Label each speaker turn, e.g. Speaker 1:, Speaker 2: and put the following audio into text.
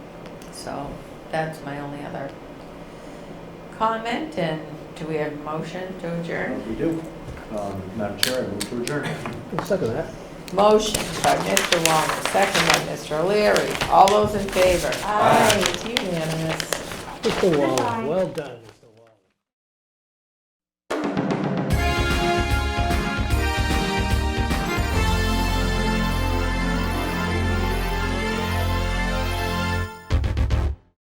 Speaker 1: So that's my only other comment. And do we have a motion to adjourn?
Speaker 2: We do. Um, Madam Chair, I move to adjourn.
Speaker 3: I'll second that.
Speaker 1: Motion by Mr. Walner, second by Mr. O'Leary. All those in favor? Aye. It's unanimous.
Speaker 3: Mr. Waller, well done.